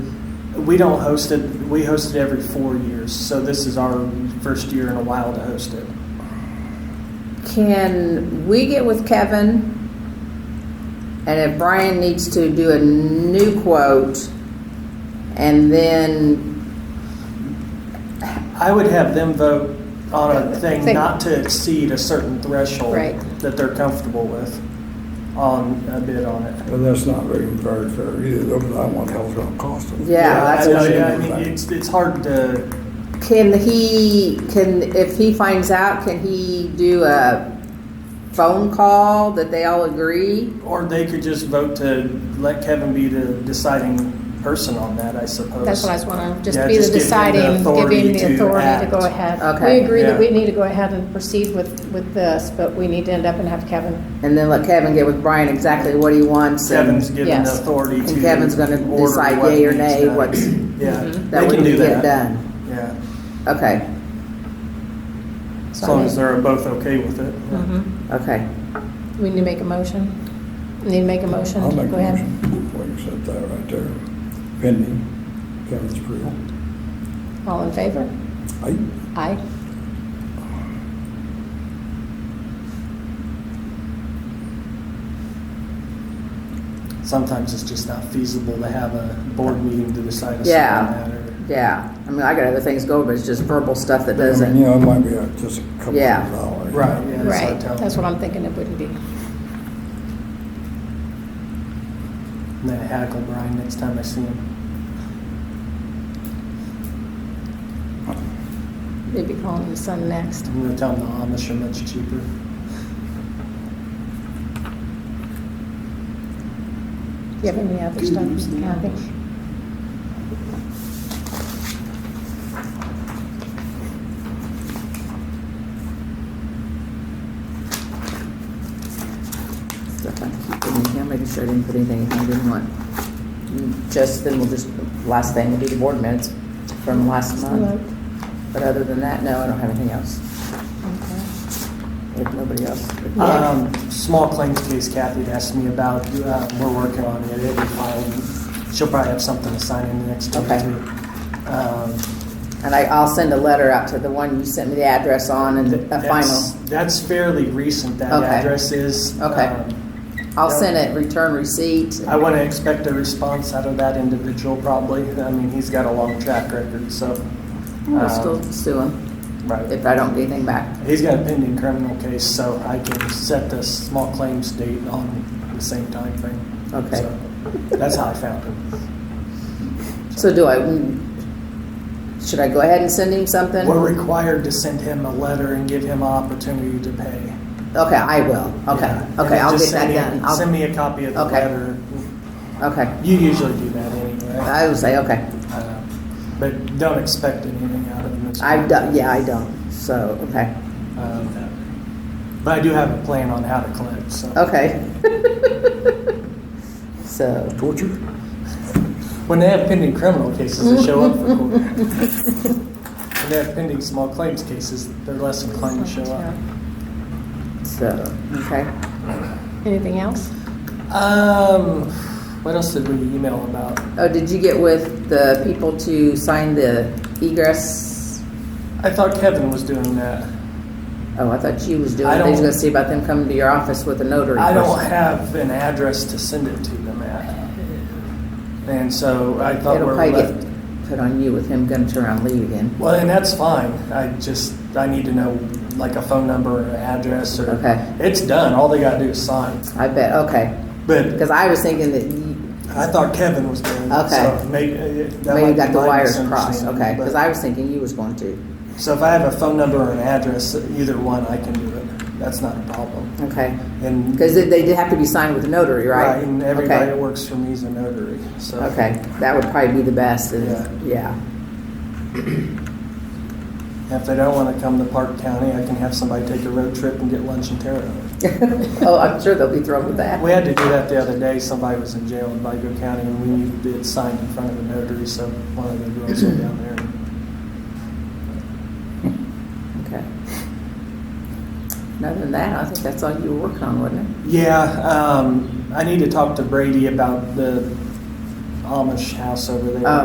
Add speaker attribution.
Speaker 1: we don't host it, we host it every four years, so this is our first year in a while to host it.
Speaker 2: Can we get with Kevin? And if Brian needs to do a new quote, and then,
Speaker 1: I would have them vote on a thing
Speaker 2: Thing.
Speaker 1: not to exceed a certain threshold
Speaker 2: Right.
Speaker 1: that they're comfortable with on a bid on it.
Speaker 3: But that's not very, very fair either, though, because I want health at all cost.
Speaker 2: yeah,
Speaker 1: I
Speaker 2: that's
Speaker 1: know,
Speaker 2: what
Speaker 3: she-
Speaker 1: yeah, I mean, it's, it's hard to,
Speaker 2: Can he, can, if he finds out, can he do a phone call that they all agree?
Speaker 1: or they could just vote to let Kevin be the deciding person on that, I suppose.
Speaker 4: That's what I was wondering, just
Speaker 1: Yeah,
Speaker 4: be the
Speaker 1: just give him the
Speaker 4: deciding,
Speaker 1: authority
Speaker 4: giving
Speaker 1: to
Speaker 4: the authority to
Speaker 1: act.
Speaker 4: go ahead.
Speaker 2: Okay.
Speaker 4: We agree that we
Speaker 1: Yeah.
Speaker 4: need to go ahead and proceed with, with this, but we need to end up and have Kevin.
Speaker 2: And then let Kevin get with Brian exactly what he wants. and-
Speaker 1: Kevin's given the
Speaker 4: Yes.
Speaker 1: authority to.
Speaker 2: And Kevin's gonna
Speaker 1: order
Speaker 2: decide
Speaker 1: what
Speaker 2: yea or
Speaker 1: needs
Speaker 2: nay,
Speaker 1: done.
Speaker 2: what's-
Speaker 1: Yeah,
Speaker 2: That
Speaker 1: they
Speaker 2: we
Speaker 1: can do
Speaker 2: can
Speaker 1: that.
Speaker 2: get done.
Speaker 1: Yeah,
Speaker 2: Okay,
Speaker 1: as
Speaker 4: So
Speaker 1: long
Speaker 4: I
Speaker 1: as
Speaker 4: mean,
Speaker 1: they're both okay with it.
Speaker 2: Mm-hmm. okay.
Speaker 4: Mm-hmm. We need to make a motion. We Need to make a motion.
Speaker 3: I'll
Speaker 4: to
Speaker 3: make a
Speaker 4: go ahead.
Speaker 3: motion, we accept that right there, pending Kevin's approval.
Speaker 4: All in favor?
Speaker 3: Aye.
Speaker 4: Aye.
Speaker 1: Sometimes it's just not feasible to have a board meeting to decide a
Speaker 2: Yeah.
Speaker 1: certain matter.
Speaker 2: Yeah, I mean, I got other things going, but it's just verbal stuff that
Speaker 3: I mean,
Speaker 2: doesn't,
Speaker 3: you know, it might be uh, just a couple of
Speaker 2: Yeah.
Speaker 3: dollars.
Speaker 1: Right, yeah, that's what I
Speaker 4: Right,
Speaker 1: tell
Speaker 4: that's
Speaker 1: them.
Speaker 4: what I'm thinking it wouldn't be.
Speaker 1: And then I hackle Brian next time I see him.
Speaker 4: They'd be calling his son next.
Speaker 1: I'm gonna tell him the Amish are much cheaper.
Speaker 4: Do you have any other stuff, Kathy?
Speaker 2: stuff I'm keeping in here, making sure I didn't put anything in I didn't want. mm, Just, then we'll just, last thing will be the board minutes from last month. But other than that, no, I don't have anything else.
Speaker 4: Okay.
Speaker 2: If nobody else.
Speaker 4: Yeah.
Speaker 1: Um, small claims case Kathy had asked me about, uh, we're working on it, it'll be filed. She'll probably have something to sign in the next day or
Speaker 2: Okay.
Speaker 1: two. Um,
Speaker 2: And I, I'll send a letter out to the one you sent me the address on and the- a
Speaker 1: that's-
Speaker 2: final.
Speaker 1: That's fairly recent, that
Speaker 2: Okay.
Speaker 1: address is.
Speaker 2: Okay.
Speaker 1: Um,
Speaker 2: I'll send it, return receipt.
Speaker 1: I want to expect a response out of that individual probably. I mean, he's got a long track record, so.
Speaker 2: We'll
Speaker 1: um,
Speaker 2: still sue him
Speaker 1: Right.
Speaker 2: if I don't get anything back.
Speaker 1: He's got a pending criminal case, so I can set the small claims date on the same time frame.
Speaker 2: Okay.
Speaker 1: So, That's how I found him.
Speaker 2: So do I, mm, should I go ahead and send him something?
Speaker 1: We're required to send him a letter and give him opportunity to pay.
Speaker 2: Okay, I will. Okay,
Speaker 1: Yeah. And
Speaker 2: okay,
Speaker 1: then
Speaker 2: I'll
Speaker 1: just
Speaker 2: get that
Speaker 1: send me-
Speaker 2: done. I'll-
Speaker 1: Send me a copy of the
Speaker 2: Okay.
Speaker 1: letter.
Speaker 2: Okay,
Speaker 1: You usually do that anyway.
Speaker 2: I will say, okay.
Speaker 1: Uh, But don't expect anything out of him.
Speaker 2: I've done, yeah, I don't, so, okay,
Speaker 1: Um, But I do have a plan on how to collect, so.
Speaker 2: okay. So,
Speaker 3: Torture?
Speaker 1: When they have pending criminal cases, they show up for court. When they have pending small claims cases, they're less inclined to show up.
Speaker 2: so, okay.
Speaker 4: Anything else?
Speaker 1: Um, what else did we email about?
Speaker 2: Oh, did you get with the people to sign the egress?
Speaker 1: I thought Kevin was doing that.
Speaker 2: Oh, I thought you was doing,
Speaker 1: I
Speaker 2: I was
Speaker 1: don't-
Speaker 2: gonna see about them coming to your office with a notary.
Speaker 1: I don't
Speaker 2: person.
Speaker 1: have an address to send it to them at. And so I thought
Speaker 2: It'll
Speaker 1: where
Speaker 2: probably
Speaker 1: we left.
Speaker 2: get put on you with him gonna turn around and leave again.
Speaker 1: Well, and that's fine. I just, I need to know like a phone number or an address or.
Speaker 2: Okay.
Speaker 1: It's done. All they gotta do is sign.
Speaker 2: I bet, okay.
Speaker 1: But
Speaker 2: Because I was thinking that you,
Speaker 1: I thought Kevin was doing it.
Speaker 2: Okay.
Speaker 1: So maybe, uh, that
Speaker 2: Maybe
Speaker 1: might
Speaker 2: got
Speaker 1: be
Speaker 2: the
Speaker 1: my
Speaker 2: wires crossed,
Speaker 1: misunderstanding,
Speaker 2: okay,
Speaker 1: but-
Speaker 2: because I was thinking you was going to.
Speaker 1: So if I have a phone number or an address, either one, I can do it. That's not a problem.
Speaker 2: Okay,
Speaker 1: And
Speaker 2: because they they did have to be signed with a notary, right?
Speaker 1: and everybody that
Speaker 2: Okay.
Speaker 1: works for me is a notary. So
Speaker 2: Okay, that would probably be the best, is- yeah,
Speaker 1: if they don't want to come to Park County, I can have somebody take a road trip and get lunch in Terre Haute.
Speaker 2: oh, I'm sure they'll be thrilled with that.
Speaker 1: We had to do that the other day. Somebody was in jail in Vigo County, and we needed it signed in front of a notary. So one of the girls went down there.
Speaker 2: Okay. Other than that, I think that's all you were working on, wasn't it?
Speaker 1: Yeah, um, I need to talk to Brady about the Amish house over there.
Speaker 2: Oh,